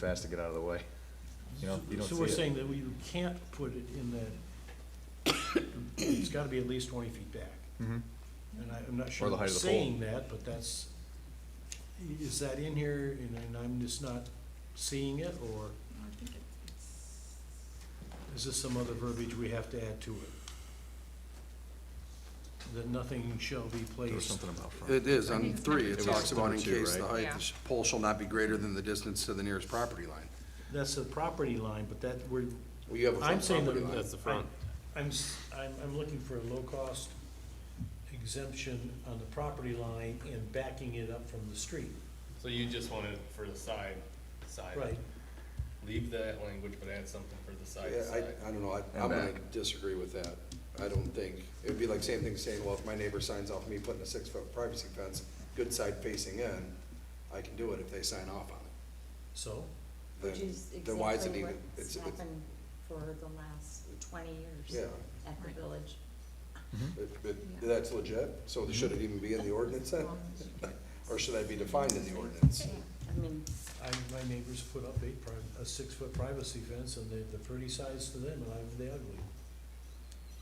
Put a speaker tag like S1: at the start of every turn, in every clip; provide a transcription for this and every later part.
S1: fast to get out of the way. You know, you don't
S2: So we're
S1: see it.
S2: saying that we- you can't put it in the, it's gotta be at least twenty feet back.
S3: Mm-hmm.
S1: Mhm.
S2: And I, I'm not sure
S1: Or the height
S2: I'm
S1: of the pole.
S2: saying that, but that's, i- is that in here and and I'm just not seeing it, or
S4: I think it's,
S2: is this some other verbiage we have to add to it? That nothing shall be
S1: There was
S2: placed,
S1: something about front.
S3: It is,
S4: I
S3: on
S4: think
S3: three,
S4: number
S3: it
S4: two.
S3: talks about in
S1: Number two,
S3: case the
S1: right?
S3: height,
S4: Yeah.
S3: the sh- pole shall not be greater than the distance to the nearest property line.
S2: that's the property line, but that, we're,
S3: Well, you have a
S2: I'm
S3: front
S2: saying
S3: property
S2: that-
S3: line.
S5: That's the front.
S2: I'm, s- I'm, I'm looking for a low-cost exemption on the property line and backing it up from the street.
S5: So you just wanted for the side, side.
S2: Right,
S5: Leave that language, but add something for the side,
S3: Yeah,
S5: side.
S3: I, I don't know, I-
S1: And
S3: I'm gonna
S1: back.
S3: disagree with that. I don't think, it'd be like same thing saying, well, if my neighbor signs off me putting a six-foot privacy fence, good side facing in, I can do it if they sign off on it.
S2: so,
S3: Then-
S6: Which is
S3: Then why is it
S6: exactly
S3: even,
S6: what's
S3: it's, it's,
S6: happened for the last twenty
S3: yeah,
S6: years at the
S4: Right.
S6: village.
S3: it, it, that's legit, so should it even be in the ordinance then? Or should that be defined in the ordinance?
S6: I mean,
S2: I, my neighbors put up a pri- a six-foot privacy fence, and the, the pretty size to them, and I'm the ugly.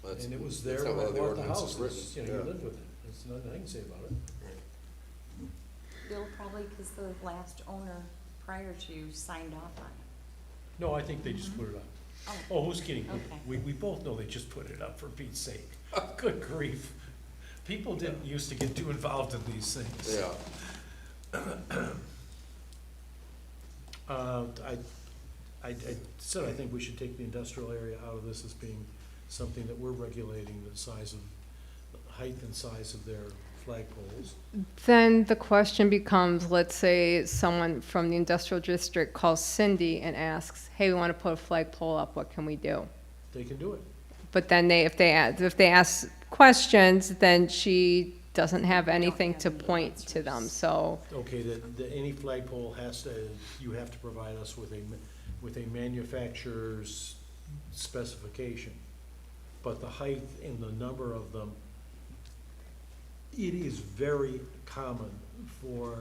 S3: That's-
S2: And it was
S3: that's
S2: there
S3: not
S2: when I
S3: how the
S2: bought the
S3: ordinance is
S2: house, it's, you
S3: written,
S2: know, you
S3: yeah.
S2: live with it, there's nothing I can say about it.
S6: Bill, probably because the last owner prior to you signed off on
S2: No, I think they just put it up.
S6: it. Oh,
S2: Oh, who's kidding?
S6: Okay.
S2: We, we both know they just put it up for Pete's sake. Good grief. People didn't used to get too involved in these things.
S3: Yeah.
S2: Uh, I, I, I said I think we should take the industrial area out of this as being something that we're regulating, the size of, height and size of their flagpoles.
S7: Then the question becomes, let's say someone from the industrial district calls Cindy and asks, hey, we want to put a flagpole up, what can we do?
S2: They can do it.
S7: But then they, if they, a- if they ask questions, then she doesn't have anything
S6: have
S7: to
S6: any
S7: point to them,
S6: answers.
S7: so.
S2: Okay, that, that any flagpole has to, you have to provide us with a, ma- with a manufacturer's specification. But the height and the number of them, it is very common for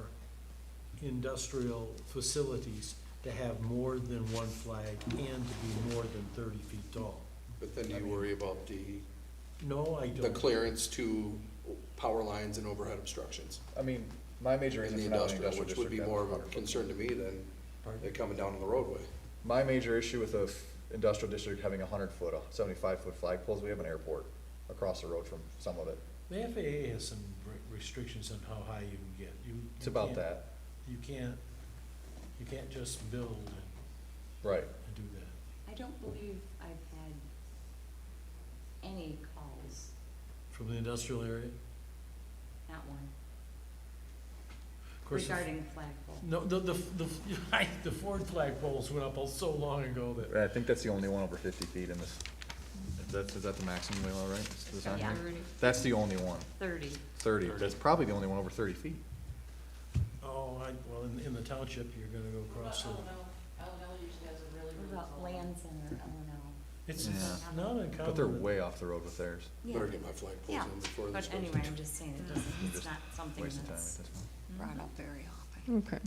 S2: industrial facilities to have more than one flag and to be more than thirty feet tall.
S3: But then do you worry about the,
S2: No, I
S3: the
S2: don't.
S3: clearance to power lines and overhead obstructions?
S1: I mean, my major
S3: In
S1: reason
S3: the
S1: for not having
S3: industrial,
S1: industrial
S3: which would
S1: district.
S3: be
S1: down the
S3: more of a
S1: front.
S3: concern to me than
S2: Pardon?
S3: it coming down on the roadway.
S1: My major issue with a f- industrial district having a hundred foot, uh, seventy-five foot flagpoles, we have an airport across the road from some of it.
S2: The FAA has some re- restrictions on how high you can get. You, you
S1: It's about
S2: can't-
S1: that,
S2: You can't, you can't just build and,
S1: right.
S2: and do that.
S6: I don't believe I've had any calls,
S2: From the industrial area?
S6: not one,
S2: Of course, the-
S6: regarding flagpole.
S2: No, the, the, the, the Ford flagpoles went up so long ago that,
S1: I think that's the only one over fifty feet in this, is that, is that the maximum we allow, right? Is this on
S6: Yeah.
S1: here? That's the only one.
S6: Thirty.
S1: Thirty. that's probably the only one over thirty feet.
S2: oh, I, well, in, in the township, you're gonna go across the.
S6: What about land center, oh no.
S2: It's
S1: Yeah.
S2: not uncommon.
S1: But they're
S2: that-
S1: way off the road with theirs.
S3: Better get my flag poles
S6: Yeah,
S3: in before this
S6: But
S3: goes.
S6: anyway, I'm just saying it doesn't,
S1: Just
S6: it's not something
S1: Waste of time at
S6: that's
S1: this point.
S6: brought up very often.
S7: Okay.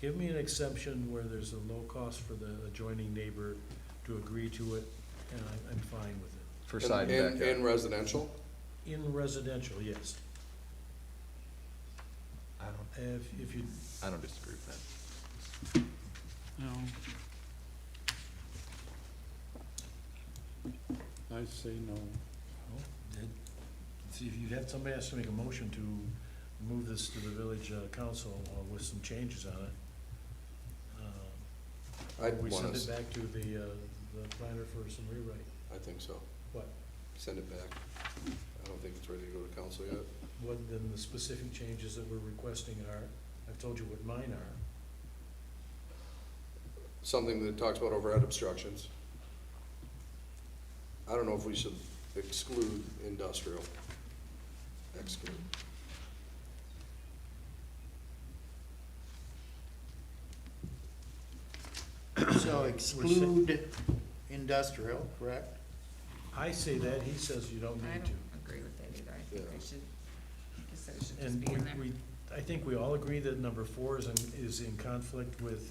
S2: Give me an exception where there's a low cost for the adjoining neighbor to agree to it, and I'm, I'm fine with it.
S1: For side
S3: In-
S1: and
S3: in-
S1: backyard.
S3: In residential,
S2: In residential, yes.
S1: I don't,
S2: If, if you,
S1: I don't disagree with that.
S8: No. I say no.
S2: well, then, see, if you have, somebody has to make a motion to move this to the village uh, council uh, with some changes on it. Uh,
S3: I'd
S2: We
S3: want
S2: send it
S3: to,
S2: back to the, uh, the planner for some rewrite.
S3: I think so,
S2: What,
S3: send it back. I don't think it's ready to go to council yet.
S2: what then the specific changes that we're requesting are, I've told you what mine are.
S3: Something that talks about overhead obstructions. I don't know if we should exclude industrial. Exclude.
S9: So exclude industrial, correct?
S2: I say that, he says you don't
S4: I
S2: need
S4: don't
S2: to.
S4: agree with that either, I think
S3: Yeah.
S4: they should, I guess that should just
S2: And
S4: be in there.
S2: we, we, I think we all agree that number four is, in- is in conflict with